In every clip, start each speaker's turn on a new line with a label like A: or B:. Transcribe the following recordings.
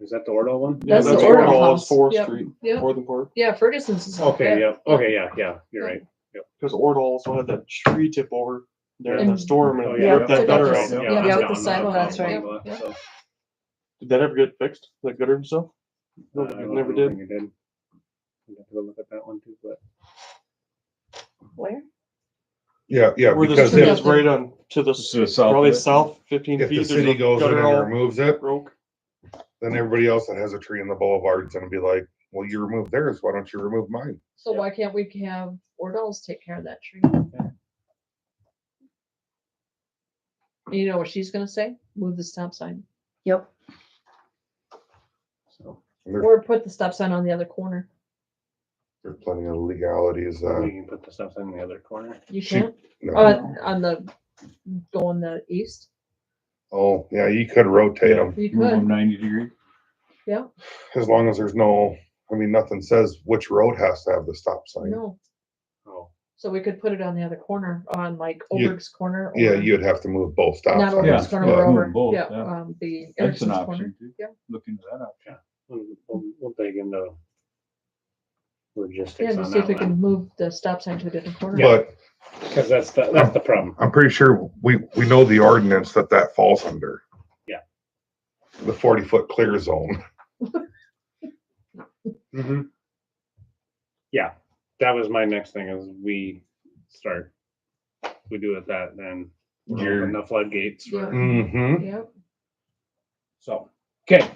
A: Is that the Ordell one?
B: Yeah,
C: That's the
B: that's
C: Order
B: Order
C: House.
B: is Fourth
C: Yep.
B: Street,
C: Yep.
B: Northern Park.
C: Yeah, Ferguson's is.
A: Okay,
C: yeah.
A: yeah, okay, yeah, yeah, you're right.
B: Because Ordal also had that tree tip over there in the
C: And-
B: storm
A: Oh,
B: and
A: yeah.
B: ripped that
C: Yeah.
B: gutter
C: Right.
B: out.
C: Yeah.
A: I'm
C: Yeah.
A: down
C: The
A: on
C: sidewalk,
A: that
C: that's right.
A: one,
C: Yeah.
A: so,
B: Did that ever get fixed? That gutter and stuff? No,
A: uh, I
B: it
A: don't
B: never
A: think
B: did.
A: it did. I'd have to go look at that one too, but
C: Where?
D: Yeah, yeah,
B: Where the
D: because
B: street
C: if-
B: is
D: if,
B: right on, to the,
E: This
B: s-
E: is the south
B: probably
E: of it.
B: south fifteen
D: if
B: feet.
D: the
B: there's a
D: city goes in
B: gutter all
D: and removes it,
B: Broke.
D: then everybody else that has a tree in the boulevard's gonna be like, well, you removed theirs, why don't you remove mine?
C: So
A: Yeah.
C: why can't we have Ordals take care of that tree? You know what she's gonna say? Move the stop sign
F: Yep.
A: so.
D: And There's,
C: or put the stop sign on the other corner.
D: there's plenty of legalities, uh,
A: We can put the stuff in the other corner.
C: You
D: She-
C: can't,
D: no.
C: uh, on the, going the east.
D: oh, yeah, you could rotate them,
C: You
E: Move
C: could,
E: them ninety degree.
C: yeah,
D: as long as there's no, I mean, nothing says which road has to have the stop sign.
C: no.
A: Oh,
C: So we could put it on the other corner, on like
D: You-
C: Oberg's corner.
D: Yeah,
C: or-
D: you'd have to move both stop
C: Not
D: signs.
C: Oberg's
E: Yeah,
C: corner,
E: yeah,
C: but
E: move
C: over,
E: both,
C: yeah,
E: yeah.
C: um, the
E: That's an
C: Erickson's corner.
E: option. too.
C: Yeah.
E: Look into that option.
A: we'll, we'll- we'll dig into
C: Yeah,
A: logistics
C: to
A: on
C: see if we
A: that
C: can
A: one.
C: move the stop sign to a different corner.
D: But
A: Cause that's the, that's the problem.
D: I'm pretty sure we, we know the ordinance that that falls under.
A: Yeah.
D: The forty foot clear zone.
A: Mm-hmm. Yeah, that was my next thing is we start, we do it that, then we're
E: You're-
A: open the floodgates. for-
C: Yeah.
D: Mm-hmm.
C: Yep.
A: So, okay,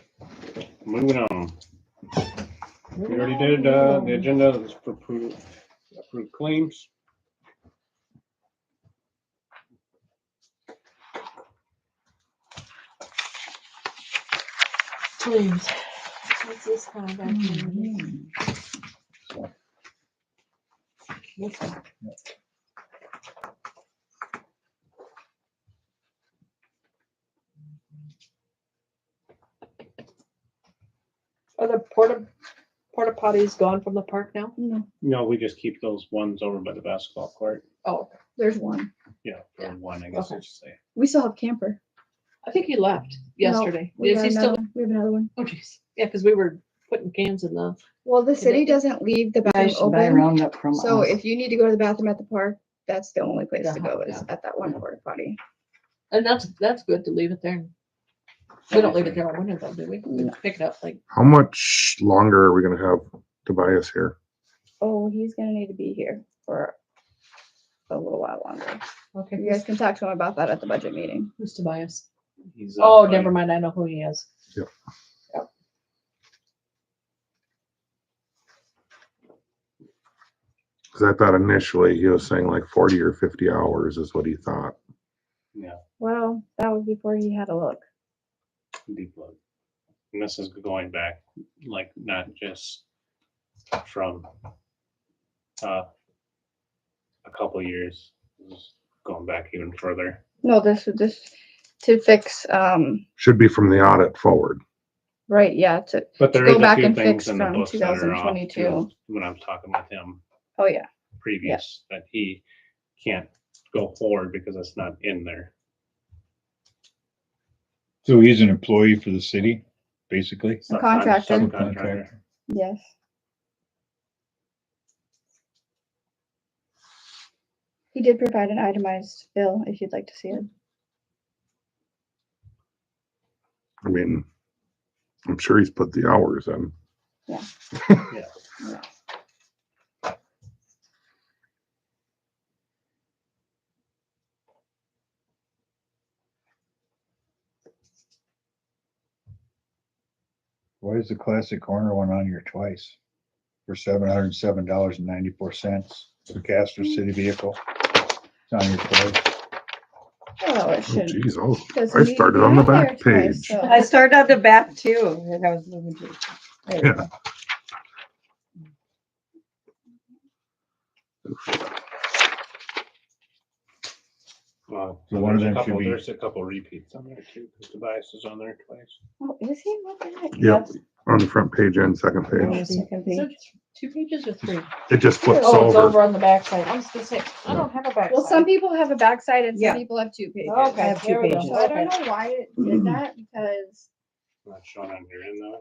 A: moving on. We already did, uh, the agenda is for approved, approved claims.
C: Please. What's this kind of activity? This one. Are the porta, porta potties gone from the park now?
F: No,
A: No, we just keep those ones over by the basketball court.
C: Oh,
F: there's one.
A: Yeah, for
C: Yeah.
A: one, I guess I
C: Okay.
A: should say.
F: We still have camper.
C: I think he left
F: No,
C: yesterday.
F: We
C: Is
F: got
C: he still?
F: another- We have another one.
C: Oh jeez. Yeah, because we were putting cans in the,
F: Well, the
C: city
F: city doesn't leave the bathroom open,
G: Roundup from
F: so
G: us.
F: if you need to go to the bathroom at the park, that's the only place
C: Yeah,
F: to go is
C: yeah.
F: at that one porta potty.
C: and that's, that's good to leave it there. We don't leave it there all winter though, do we? We
G: No.
C: pick it up like
D: How much longer are we gonna have Tobias here?
F: Oh, he's gonna need to be here for a little while longer.
C: Okay,
F: You
C: who's,
F: guys can talk to him about that at the budget meeting.
C: who's Tobias?
A: He's, uh,
C: Oh,
A: buddy-
C: never mind. I know who he is.
D: Yep.
C: Yep.
D: Cause I thought initially he was saying like forty or fifty hours is what he thought.
F: Well, that was before he had a look.
A: deep load. And this is going back, like, not just from uh, a couple years, This is going back even further.
F: No, this is just to fix, um,
D: Should be from the audit forward.
F: right, yeah, to,
A: But there
F: Go
A: is a
F: back
A: few
F: and
A: things
F: fix
A: in the
F: from
A: book that are off
F: 2022.
A: too, when I'm talking with him
F: oh yeah,
A: previous, that he can't go forward because it's not in there.
E: So he's an employee for the city, basically.
A: It's not
F: A
A: con-
F: contractor.
A: subcontractor.
F: yes. He did provide an itemized bill if you'd like to see it.
D: I mean, I'm sure he's put the hours in.
E: Why is the classic corner one on here twice? For seven hundred and seven dollars and ninety-four cents for Casper City vehicle. It's on here twice.
F: Oh, it
D: Oh,
F: should.
D: Geez, oh,
F: doesn't
D: I
F: need to
D: started
F: be
D: on the
F: out there
D: back
F: twice,
D: page.
F: so-
G: I started at the back too, as I was moving to. there you
D: Yeah.
G: go.
A: Well,
E: So one of
A: there's a
E: them should
A: couple-
E: be-
A: There's a couple repeats on there too, because Tobias is on there twice.
F: Oh, is he? What the heck?
D: yep, on the front page and second
F: Hold on
D: page.
F: a second,
C: Is
F: babe.
C: it Two pages or three?
D: It just flips
C: Oh, it's
D: over.
C: over on the backside. I was gonna say, I don't have a backside.
F: Well, some people have a backside and
G: Yeah.
F: some people have two pages.
G: I
C: Okay,
G: have two
C: there we
G: pages.
F: So
C: go.
D: Mm-hmm.
F: I don't know why it did that because
A: Not shown on here in though.